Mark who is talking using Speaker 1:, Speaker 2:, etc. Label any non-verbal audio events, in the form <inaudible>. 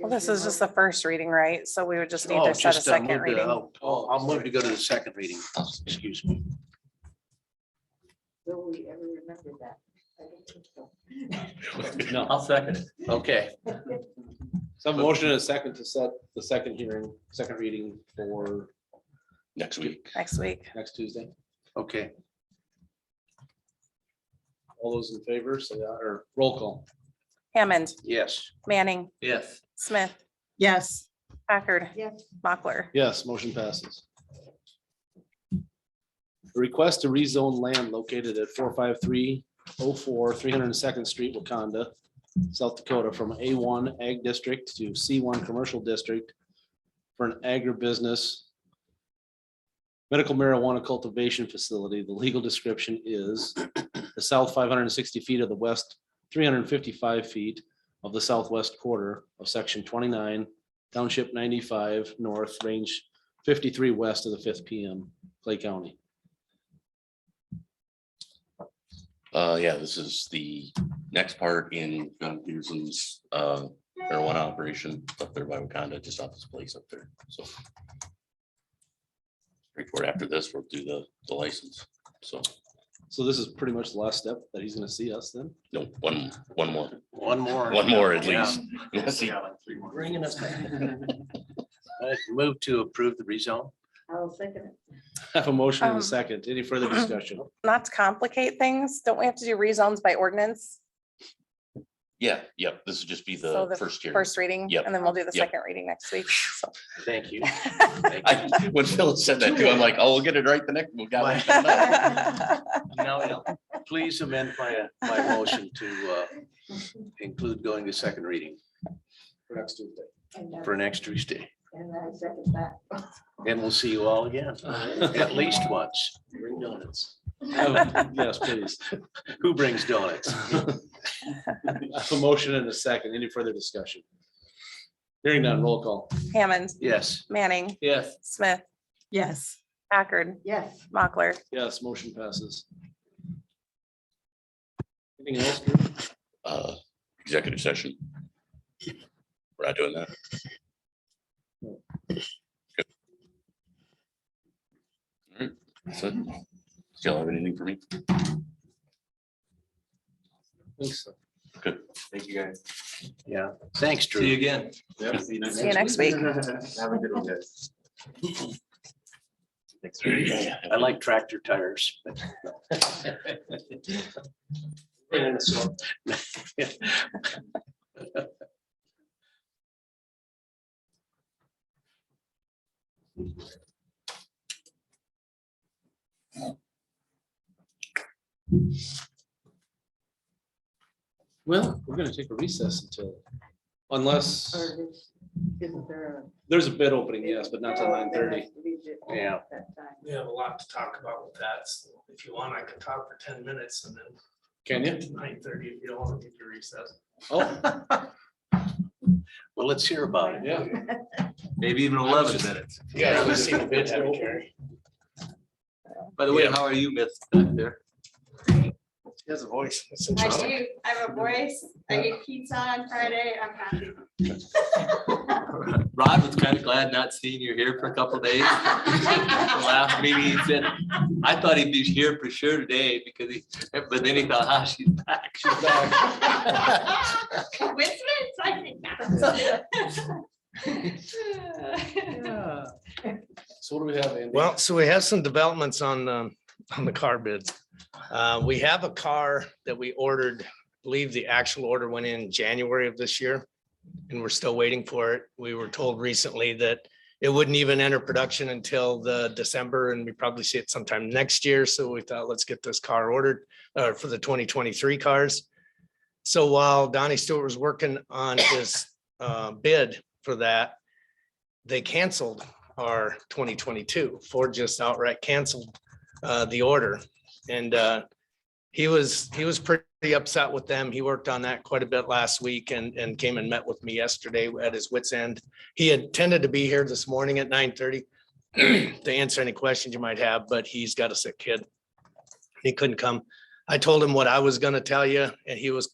Speaker 1: Well, this is just the
Speaker 2: Mm-hmm.
Speaker 1: first reading, right? So we would just need
Speaker 3: Oh,
Speaker 1: to set a
Speaker 3: just, uh, move
Speaker 1: second
Speaker 3: to-
Speaker 1: reading.
Speaker 3: oh, Oh, I'll move to go to the second reading, excuse me.
Speaker 4: Will we ever remember that? I don't think so.
Speaker 5: No,
Speaker 3: I'll second it. Okay,
Speaker 5: some motion and a second to set the second hearing, second reading for
Speaker 2: next week.
Speaker 1: Next week.
Speaker 5: next Tuesday.
Speaker 3: okay,
Speaker 5: All those in favor, say aye, or roll call.
Speaker 1: Hammond,
Speaker 3: yes.
Speaker 1: Manning,
Speaker 3: Yes.
Speaker 1: Smith,
Speaker 6: yes,
Speaker 1: Packard,
Speaker 4: Yes,
Speaker 1: Mochler.
Speaker 5: Yes, motion passes. Request to rezone land located at four five three oh four, three hundred and second street, Wakanda, South Dakota, from A one ag district to C one commercial district for an agribusiness medical marijuana cultivation facility. The legal description is the south five hundred and sixty feet of the west, three hundred and fifty-five feet of the southwest quarter of section twenty-nine Township ninety-five north, range fifty-three west of the fifth PM, Clay County.
Speaker 2: Uh, yeah, this is the next part in John Peterson's uh marijuana operation up there by Wakanda, just off his place up there, so. Report after this, we'll do the the license, so,
Speaker 5: So this is pretty much the last step that he's gonna see us then. <laughs>
Speaker 2: no, one, one more,
Speaker 3: One more.
Speaker 2: one more at
Speaker 3: Yeah.
Speaker 2: least. Yes, he-
Speaker 3: Bringing us back. I Move to approve the rezone?
Speaker 4: I'll second it.
Speaker 5: Have a motion and
Speaker 1: Um,
Speaker 5: a second. Any further discussion?
Speaker 1: Not to complicate things, don't we have to do rezones by ordinance?
Speaker 2: <laughs> Yeah, yep, this would just be
Speaker 1: So
Speaker 2: the
Speaker 1: the
Speaker 2: first year.
Speaker 1: First reading,
Speaker 2: Yep.
Speaker 1: and then we'll do the
Speaker 2: Yep.
Speaker 1: second reading next week. So <laughs>
Speaker 3: Thank you.
Speaker 2: <laughs> I, when Phil said that too, I'm like, oh, we'll get it right the next, we got
Speaker 1: <laughs>
Speaker 2: it.
Speaker 3: No, no. Please amend my, my motion to uh, include going to second reading
Speaker 5: For next
Speaker 7: <laughs>
Speaker 5: Tuesday.
Speaker 4: <laughs> And I-
Speaker 3: for next Tuesday.
Speaker 4: and I second that. <laughs>
Speaker 3: And we'll see you all again, at least once.
Speaker 5: Bring donuts. Oh, Yes, please. <laughs>
Speaker 3: Who brings donuts?
Speaker 5: Have a motion and a second. Any further discussion? Hearing none, roll call.
Speaker 1: Hammond,
Speaker 3: Yes.
Speaker 1: Manning,
Speaker 3: Yes.
Speaker 1: Smith,
Speaker 6: yes.
Speaker 1: Packard,
Speaker 4: Yes,
Speaker 1: Mochler.
Speaker 5: Yes, motion passes. Anything else? Drew?
Speaker 2: Uh, Executive session. We're not doing that. Good. All right, that's it. Still have anything for me?
Speaker 5: Thanks.
Speaker 7: Thank you, guys.
Speaker 3: Yeah. Thanks,
Speaker 7: See
Speaker 3: Drew.
Speaker 7: you again.
Speaker 1: See you next week.
Speaker 7: <laughs> Have a good one, guys.
Speaker 3: I like tractor tires. but-
Speaker 5: And so- Well, we're gonna take a recess until, unless,
Speaker 4: or is- isn't there a?
Speaker 5: there's a bid opening, yes, but not till nine thirty.
Speaker 3: Yeah.
Speaker 8: We have a lot to talk about with that. so If you want, I can talk for ten minutes and then
Speaker 5: Can you?
Speaker 8: nine thirty, if you don't want to get your recess.
Speaker 5: Oh,
Speaker 3: Well, let's hear about it.
Speaker 5: yeah.
Speaker 7: Maybe even eleven minutes.
Speaker 5: Yeah,
Speaker 8: I've seen the bids haven't you?
Speaker 7: By the way,
Speaker 2: Yeah.
Speaker 7: how are you, Miss? back there?
Speaker 8: He has a voice.
Speaker 9: I do. I have a voice. I eat pizza on Friday. I'm happy.
Speaker 7: Rod was kind of glad not seeing you here for a
Speaker 3: <laughs>
Speaker 7: couple days. The Last meeting, he said, I thought he'd be here for sure today because he, but then he thought, ah, she's back, she's back.
Speaker 9: Coincidence? I think
Speaker 5: <laughs>
Speaker 4: <laughs>
Speaker 9: not.
Speaker 5: So what do we have, Andy?
Speaker 10: Well, so we have some developments on, um, on the car bids. Uh, we have a car that we ordered, I believe the actual order went in January of this year. And we're still waiting for it. We were told recently that it wouldn't even enter production until the December and we probably see it sometime next year. So we thought, let's get this car ordered, uh, for the twenty twenty-three cars. So while Donnie Stewart was working on his, uh, bid for that, they canceled are twenty twenty-two. Ford just outright canceled uh, the order. And uh, he was, he was pretty upset with them. He worked on that quite a bit last week and, and came and met with me yesterday at his wits end. He intended to be here this morning at nine thirty <clears throat> to answer any questions you might have, but he's got a sick kid. He couldn't come. I told him what I was gonna tell you and he was